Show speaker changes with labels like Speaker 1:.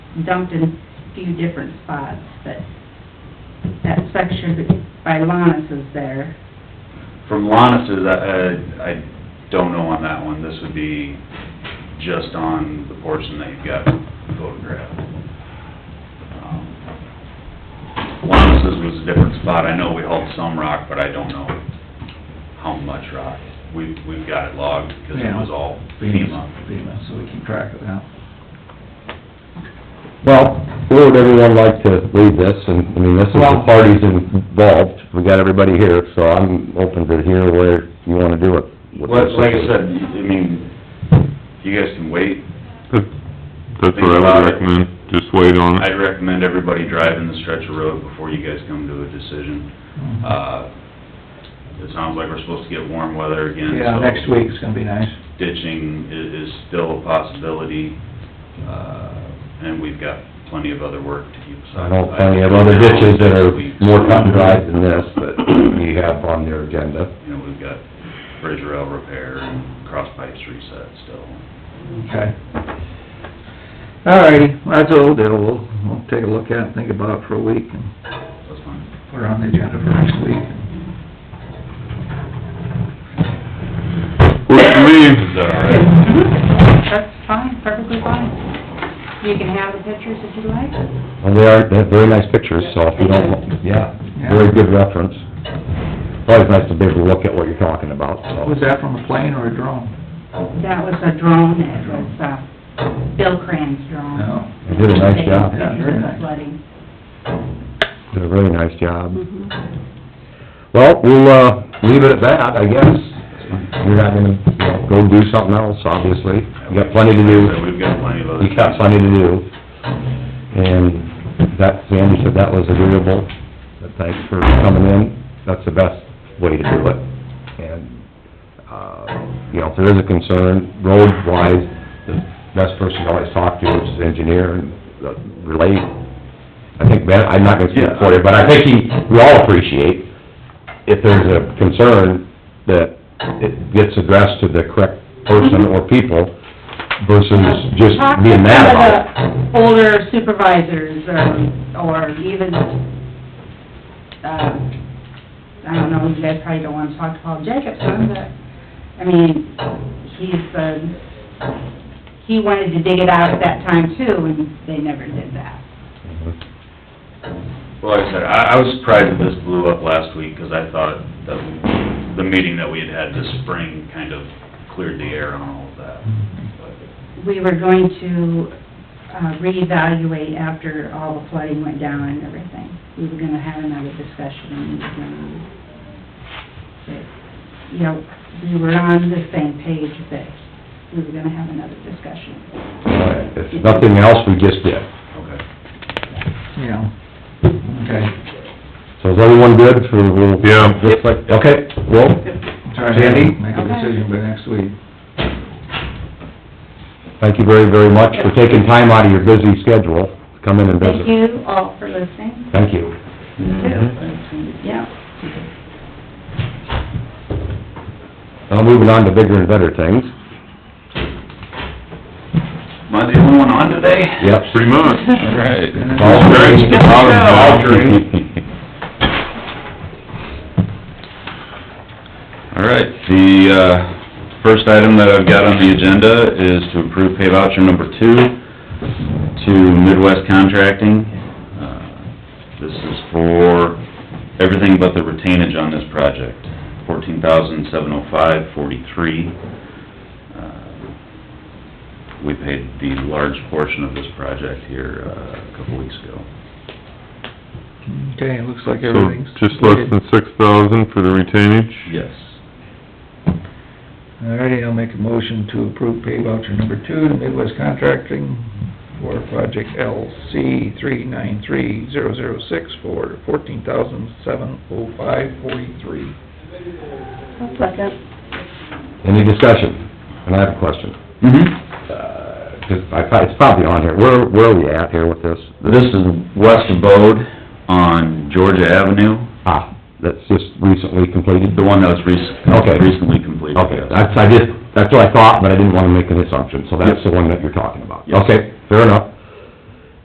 Speaker 1: dumped in a few different spots, but that section that- by Lannis is there.
Speaker 2: From Lannis's, I, I I don't know on that one, this would be just on the portion that you've got photographed. Um, Lannis's was a different spot, I know we hauled some rock, but I don't know how much rock. We, we've got it logged, because it was all FEMA.
Speaker 3: FEMA, so we keep track of that.
Speaker 4: Well, where would everyone like to leave this, and, I mean, this is the
Speaker 3: Well-
Speaker 4: parties involved, we got everybody here, so I'm open to hear where you wanna do it. with
Speaker 2: Well,
Speaker 4: this.
Speaker 2: like I said, I mean, you guys can wait,
Speaker 5: That's that's
Speaker 2: Think
Speaker 5: what I
Speaker 2: about
Speaker 5: would
Speaker 2: it.
Speaker 5: recommend, just wait on
Speaker 2: I'd
Speaker 5: it.
Speaker 2: recommend everybody driving the stretch of road before you guys come to a decision. Uh, it sounds like we're supposed to get warm weather again, so...
Speaker 3: Yeah, next week's gonna be nice.
Speaker 2: Ditching is, is still a possibility, uh, and we've got plenty of other work to keep
Speaker 4: I
Speaker 2: aside.
Speaker 4: know plenty of other ditches that are more cut and dried than this, that you have on your agenda.
Speaker 2: You know, we've got bridge rail repair and cross pipes reset still.
Speaker 3: Okay. All righty, that's what we'll do, we'll, we'll take a look at it, and think about it for a week, and
Speaker 2: That's fine.
Speaker 3: put it on the agenda for next week.
Speaker 5: Works for me.
Speaker 2: Is that all right?
Speaker 1: That's fine, perfectly fine. You can have the pictures if you like.
Speaker 4: And they are, they have very nice pictures, so if you don't, yeah, very good reference. Always nice to be able to look at what you're talking about,
Speaker 3: Was
Speaker 4: so.
Speaker 3: that from a plane or a drone?
Speaker 1: That was a drone, it was, uh, Bill Crane's drone.
Speaker 3: No.
Speaker 4: They did a nice job,
Speaker 3: Yeah, very nice.
Speaker 1: Flooding. Mm-hmm.
Speaker 4: did a very nice job. Well, we'll, uh, leave it at that, I guess. You're not gonna, you know, go do something else, obviously. You got plenty to do.
Speaker 2: Like I said, We've got plenty of other...
Speaker 4: You got plenty to do. And that, Sandy said that was agreeable, but thanks for coming in. That's the best way to do it. And, uh, you know, if there is a concern, road-wise, the best person to always talk to is the engineer and the- relate. I think Ben, I'm not gonna speak for you, but I think he, we all appreciate if there's a concern that it gets addressed to the correct person or people versus just
Speaker 1: Talk to
Speaker 4: being mad about it.
Speaker 1: some of the Older supervisors, um, or even, uh, I don't know, you guys probably don't wanna talk to Paul Jacobson, but, I mean, he's, uh, he wanted to dig it out at that time too, and they never did that.
Speaker 2: Well, like I said, I, I was surprised that this blew up last week, because I thought that the meeting that we had had this spring kind of cleared the air on all of that.
Speaker 5: Mm-hmm.
Speaker 2: But
Speaker 1: We were going to uh, reevaluate after all the flooding went down and everything. We were gonna have another discussion, and we were gonna, that, you know, we were on the same page that we were gonna have another discussion.
Speaker 4: If nothing else, we just did.
Speaker 2: Okay.
Speaker 3: Yeah. Okay.
Speaker 4: So is everyone good for, we'll...
Speaker 5: Yeah.
Speaker 4: Just like- Okay, well,
Speaker 3: Try
Speaker 4: Sandy?
Speaker 3: to make a decision by next week.
Speaker 4: thank you very, very much for taking time out of your busy schedule to come in and
Speaker 1: Thank
Speaker 4: visit.
Speaker 1: you all for listening.
Speaker 4: Thank you.
Speaker 1: Yeah.
Speaker 4: Now, moving on to bigger and better things.
Speaker 2: Am I the only one on today?
Speaker 4: Yep.
Speaker 5: Pretty much. Right.
Speaker 4: Vulturing.
Speaker 2: All right, the, uh, first item that I've got on the agenda is to approve pay voucher number two to Midwest Contracting. Uh, This is for everything but the retainage on this project, fourteen thousand seven oh five forty-three. Uh, We paid the large portion of this project here uh, a couple weeks ago.
Speaker 3: Okay, it looks like
Speaker 5: So,
Speaker 3: everything's...
Speaker 5: just less than six thousand for the retainage?
Speaker 2: Yes.
Speaker 3: All righty, I'll make a motion to approve pay voucher number two to Midwest Contracting for project LC three nine three zero zero six for fourteen thousand seven oh five forty-three.
Speaker 1: Second.
Speaker 4: Any discussion? And I have a question.
Speaker 2: Mm-hmm.
Speaker 4: Uh, 'cause I thought it's probably on here. Where, where are we at here with this?
Speaker 2: This is West Abode on Georgia Avenue,
Speaker 4: Ah, that's just recently completed?
Speaker 2: the one that was
Speaker 4: Okay.
Speaker 2: rec- recently completed.
Speaker 4: Okay,
Speaker 2: yes.
Speaker 4: that's, I just, that's what I thought, but I didn't wanna make an assumption, so that's the one that you're talking about.
Speaker 2: Yes.
Speaker 4: Okay, fair enough.